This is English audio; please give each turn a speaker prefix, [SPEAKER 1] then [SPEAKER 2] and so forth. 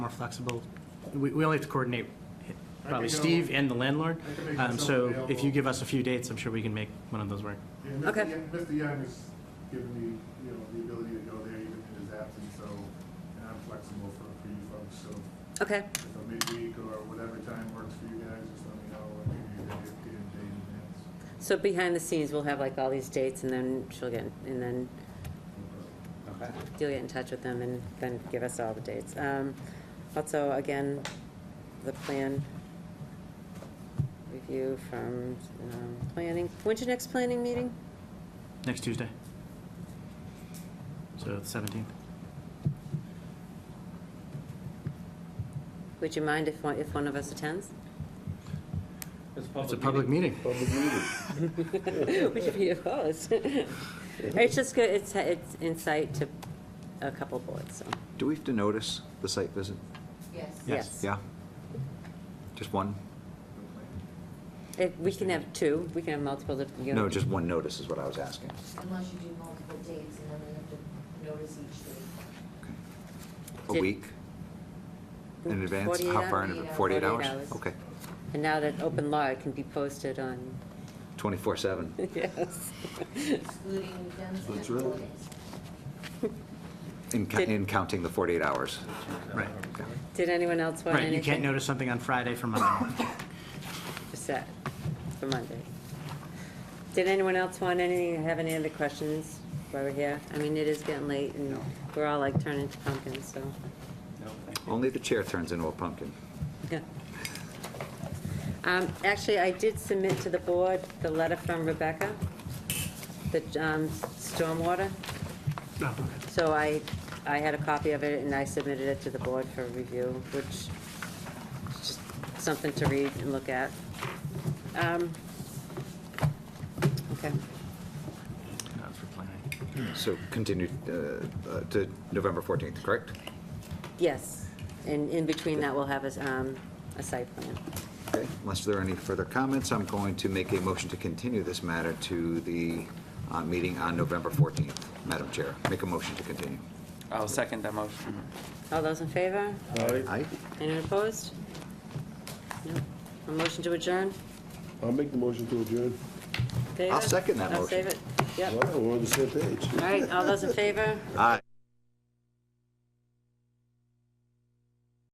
[SPEAKER 1] flexible. We, we only have to coordinate probably
[SPEAKER 2] go-
[SPEAKER 1] Steve and the landlord.
[SPEAKER 2] I can make
[SPEAKER 1] Um,
[SPEAKER 2] myself
[SPEAKER 1] So if you
[SPEAKER 2] available.
[SPEAKER 1] give us a few dates, I'm sure we can make one of those work.
[SPEAKER 2] Yeah, Mr.
[SPEAKER 3] Okay.
[SPEAKER 2] Young- Mr. Young has given me, you know, the ability to go there even in his absence, so, and I'm flexible for, for you folks, so
[SPEAKER 3] Okay,
[SPEAKER 2] if a midweek or whatever time works for you guys, just let me know, and maybe you can get a date in advance.
[SPEAKER 3] so behind the scenes, we'll have like all these dates and then she'll get, and then
[SPEAKER 4] Okay.
[SPEAKER 3] you'll get in touch with them and then give us all the dates. Um, Also, again, the plan review from um, planning, when's your next planning meeting?
[SPEAKER 1] Next Tuesday. So the 17th.
[SPEAKER 3] Would you mind if one, if one of us attends?
[SPEAKER 1] It's a public meeting.
[SPEAKER 4] Public meeting.
[SPEAKER 3] Would you be opposed? It's just good, it's, it's insight to a couple boards, so.
[SPEAKER 5] Do we have to notice the site visit?
[SPEAKER 1] Yes.
[SPEAKER 5] Yeah? Just one?
[SPEAKER 3] If, we can have two, we can have multiple, different- you know.
[SPEAKER 5] No, just one notice is what I was asking.
[SPEAKER 6] Unless you do multiple dates and then they have to notice each date.
[SPEAKER 5] A
[SPEAKER 3] Did-
[SPEAKER 5] week in advance? How
[SPEAKER 3] 48
[SPEAKER 5] far in,
[SPEAKER 3] hours.
[SPEAKER 5] adva-
[SPEAKER 6] 48
[SPEAKER 5] 48 hours?
[SPEAKER 3] hours.
[SPEAKER 5] Okay,
[SPEAKER 3] And now that open law it can be posted on,
[SPEAKER 5] 24/7.
[SPEAKER 3] yes.
[SPEAKER 6] excluding weekends and
[SPEAKER 4] That's right.
[SPEAKER 6] holidays.
[SPEAKER 5] In ca-
[SPEAKER 3] Did-
[SPEAKER 5] in counting the 48 hours.
[SPEAKER 1] Right.
[SPEAKER 3] Did anyone else want
[SPEAKER 1] Right,
[SPEAKER 3] anything?
[SPEAKER 1] you can't notice something on Friday for Monday.
[SPEAKER 3] Just that, for Monday. Did anyone else want anything, have any other questions while we're here? I mean, it is getting late and we're all like turning to pumpkins, so,
[SPEAKER 4] No, thank you.
[SPEAKER 5] Only the chair turns into a pumpkin.
[SPEAKER 3] yeah. Um, actually, I did submit to the board the letter from Rebecca, the, um, stormwater.
[SPEAKER 1] Oh, okay.
[SPEAKER 3] So I, I had a copy of it and I submitted it to the board for review, which is just something to read and look at. Um, Okay,
[SPEAKER 1] No, it's for planning.
[SPEAKER 5] So continue uh, uh, to November 14th, correct?
[SPEAKER 3] yes, and in between that, we'll have a, s- um, a site plan.
[SPEAKER 5] Okay, unless there are any further comments, I'm going to make a motion to continue this matter to the uh, meeting on November 14th. Madam Chair, make a motion to continue.
[SPEAKER 4] I'll second that motion.
[SPEAKER 3] All those in favor?
[SPEAKER 5] Aye?
[SPEAKER 3] Anyone opposed? No. A motion to adjourn?
[SPEAKER 7] I'll make the motion to adjourn.
[SPEAKER 3] David?
[SPEAKER 5] second that
[SPEAKER 3] I'll
[SPEAKER 5] motion.
[SPEAKER 3] save it, yep.
[SPEAKER 7] Wow, we're on the same page.
[SPEAKER 3] All right, all those in favor?
[SPEAKER 5] Aye.